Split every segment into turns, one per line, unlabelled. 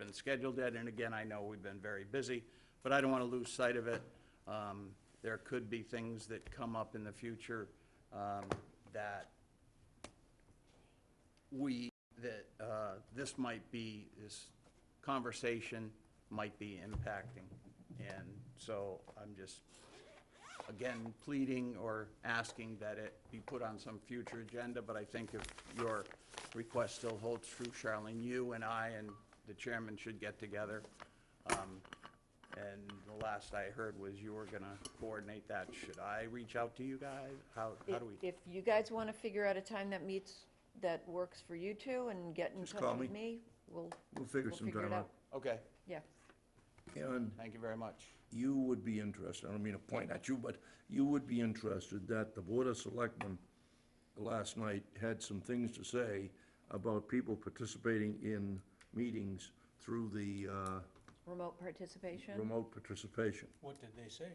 and scheduled it, and again, I know we've been very busy, but I don't want to lose sight of it. Um, There could be things that come up in the future um, that we, that uh, this might be, this conversation might be impacting. And so I'm just, again, pleading or asking that it be put on some future agenda, but I think if your request still holds true, Charlene, you and I and the chairman should get together. Um, And the last I heard was you were going to coordinate that. Should I reach out to you guys? How, how do we?
If you guys want to figure out a time that meets, that works for you two and get in
Just
touch
call
with
me.
me, we'll,
We'll figure
we'll figure
something
it out.
out.
Okay,
Yeah.
And
thank you very much.
you would be interested, I don't mean to point at you, but you would be interested that the Board of Selectmen last night had some things to say about people participating in meetings through the uh,
Remote participation?
remote participation.
What did they say?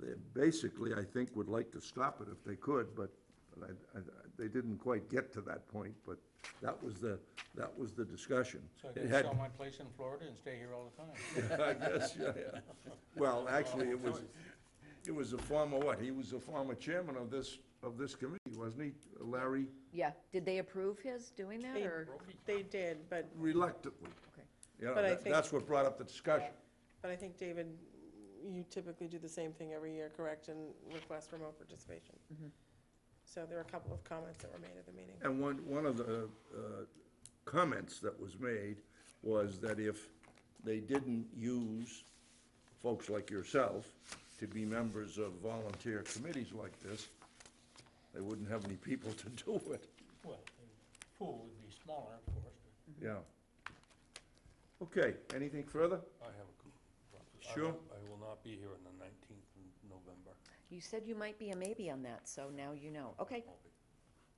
They basically, I think, would like to stop it if they could, but but I, I, they didn't quite get to that point, but that was the, that was the discussion.
So I
It
can
had-
sell my place in Florida and stay here all the time.
I guess, yeah, yeah. Well, actually, it was, it was a former, what, he was a former chairman of this, of this committee, wasn't he, Larry?
Yeah, did they approve his doing that,
They-
or?
They did, but,
Reluctantly.
Okay.
You know,
But I
that-
think-
that's what brought up the discussion.
but I think, David, you typically do the same thing every year, correct, and request remote participation? So there were a couple of comments that were made at the meeting.
And one, one of the uh, comments that was made was that if they didn't use folks like yourself to be members of volunteer committees like this, they wouldn't have any people to do it,
Well, the pool would be smaller, of course, but
yeah. Okay, anything further?
I have a. com- I
Sure.
will- I will not be here on the nineteenth of November.
You said you might be a maybe on that, so now you know. Okay,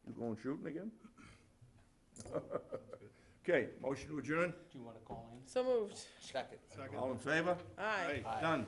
You going shooting again? Okay, motion to adjourn?
do you want to call in?
So moved.
Second.
All in favor?
Aye.
Done.